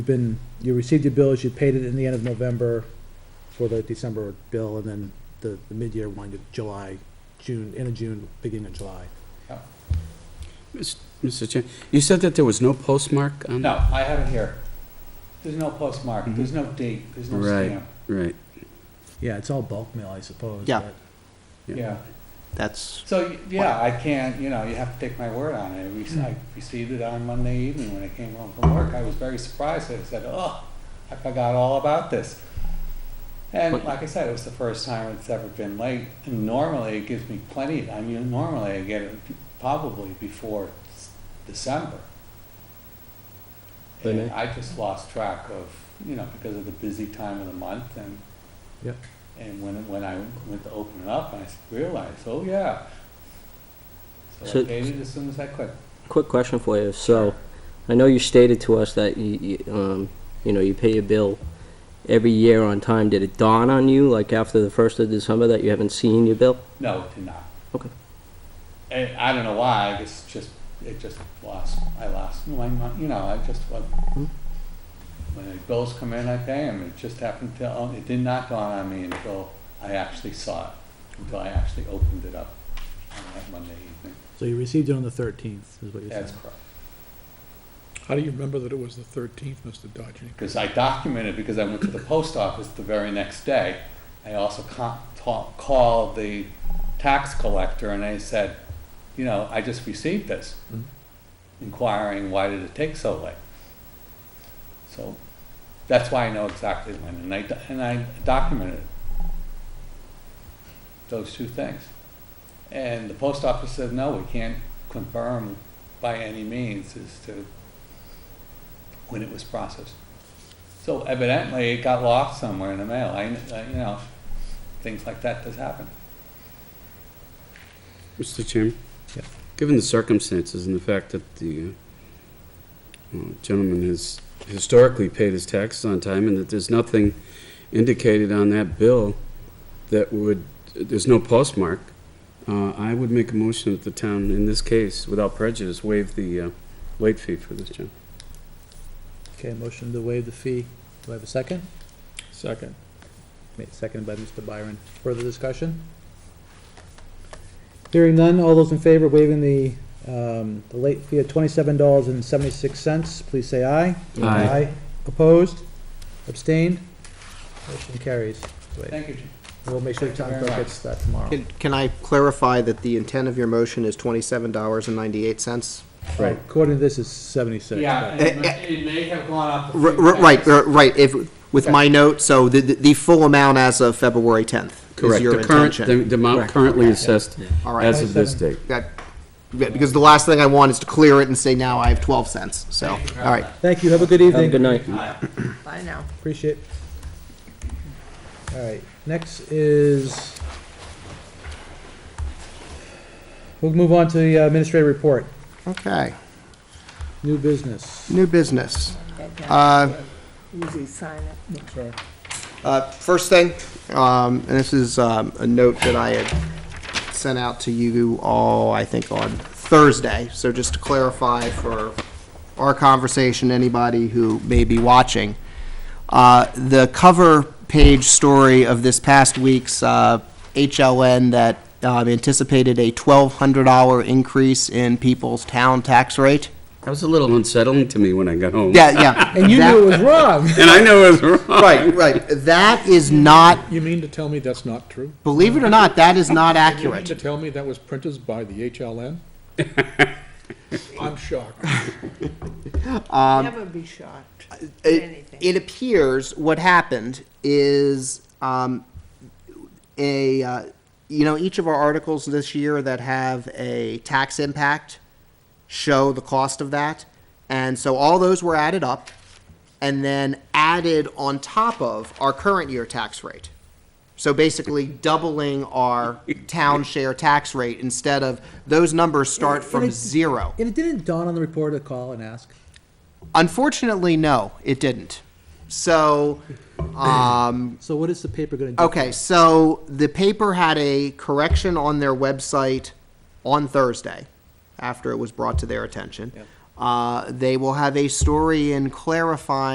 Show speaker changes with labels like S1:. S1: You've been, you received your bills, you paid it in the end of November for the December bill, and then the, the mid-year one, you- July, June, end of June, beginning of July.
S2: Mis- Mr. Chair, you said that there was no postmark on?
S3: No, I have it here. There's no postmark, there's no date, there's no
S2: Mm-hmm. Right.
S3: stamp.
S2: Right,
S1: Yeah, it's all bulk mail, I suppose.
S4: Yeah.
S1: but-
S2: Yeah.
S3: Yeah,
S4: That's,
S3: so, y- yeah, I can't, you know, you have to take my word on it. We s-
S2: Mm.
S3: I received it on Monday evening when I came home from work. I was very surprised. I said, oh, I forgot all about this. And
S2: But-
S3: like I said, it was the first time it's ever been late. And normally it gives me plenty, I mean, normally I get it probably before s- December.
S5: They
S3: And
S5: may.
S3: I just lost track of, you know, because of the busy time of the month and
S1: Yep.
S3: and when, when I went to open it up, I realized, oh yeah. So I
S5: So-
S3: paid it as soon as I could.
S5: Quick question for you. So, I know you stated to us that you, you, um, you know, you pay your bill every year on time. Did it dawn on you, like after the first of December, that you haven't seen your bill?
S3: No, it did not.
S5: Okay.
S3: And I don't know why, it's just, it just lost, I lost my, mon- you know, I just, wa- when the bills come in, I pay them. It just happened to, oh, it did not dawn on me until I actually saw it, until I actually opened it up on that Monday evening.
S1: So you received it on the thirteenth, is what you said.
S3: That's correct.
S6: How do you remember that it was the thirteenth, Mr. Dodgy?
S3: because I documented because I went to the post office the very next day. I also con- ta- called the tax collector and I said, you know, I just received this, inquiring why did it take so late. So that's why I know exactly when, and I do- and I documented those two things. And the post office said, no, we can't confirm by any means as to when it was processed. So evidently, it got lost somewhere in the mail. I, I- you know, things like that does happen.
S2: Mr. Chairman?
S1: Yeah.
S2: Given the circumstances and the fact that the uh, gentleman has historically paid his taxes on time and that there's nothing indicated on that bill that would, there's no postmark, uh, I would make a motion that the town, in this case, without prejudice, waive the uh, late fee for this, John.
S1: Okay, motion to waive the fee. Do I have a second?
S6: Second.
S1: Made seconded by Mr. Byron. Further discussion? Hearing none, all those in favor of waiving the, um, the late fee of twenty-seven dollars and seventy-six cents, please say aye.
S2: Aye.
S1: Opposed? Abstained? Motion carries.
S3: Thank you, Jim.
S1: We'll make sure the town
S3: Thank you
S1: clerk
S3: very
S1: gets that tomorrow.
S4: can, can I clarify that the intent of your motion is twenty-seven dollars and ninety-eight cents?
S1: Right. According to this, it's seventy-six.
S3: Yeah, it
S4: it may-
S3: may have gone up.
S4: R- r- Right, r- right, if, with my note, so the, the the full amount as of February tenth is
S2: Correct.
S4: your
S2: The current,
S4: intention.
S2: the- the amount
S4: Correct.
S2: currently assessed
S4: All right.
S2: as of this date.
S4: That, yeah, because the last thing I want is to clear it and say now I have twelve cents, so, all
S3: Thank you very
S4: right.
S3: much.
S1: Thank you, have a good evening.
S5: Have a good night.
S7: Bye now.
S1: Appreciate. All right, next is, we'll move on to the administrative report,
S4: Okay,
S1: new business.
S4: new business.
S7: That guy,
S4: Uh,
S7: Easy sign it.
S4: Uh, First thing, um, and this is um, a note that I had sent out to you all, I think, on Thursday. So just to clarify for our conversation, anybody who may be watching, uh, the cover page story of this past week's uh, HLN that um, anticipated a $1,200 increase in people's town tax rate.
S2: That was a little unsettling to me when I got home.
S4: Yeah, yeah.
S1: And you
S4: That-
S1: knew it was wrong.
S2: And I know it was wrong.
S4: Right, right. That is not,
S6: You mean to tell me that's not true?
S4: believe it or not, that is not
S6: You mean
S4: accurate.
S6: to tell me that was printed by the HLN? I'm shocked.
S7: Never be shocked at
S4: it,
S7: anything.
S4: it appears what happened is um, a uh, you know each of our articles this year that have a tax impact show the cost of that and so all those were added up and then added on top of our current year tax rate so basically doubling our town share tax rate instead of those numbers start from
S1: it-
S4: zero
S1: And it didn't dawn on the reporter to call and ask.
S4: unfortunately no it didn't so um,
S1: So what is the paper gonna do?
S4: Okay, so the paper had a correction on their website on Thursday, after it was brought to their attention. Uh, They will have a story in clarifying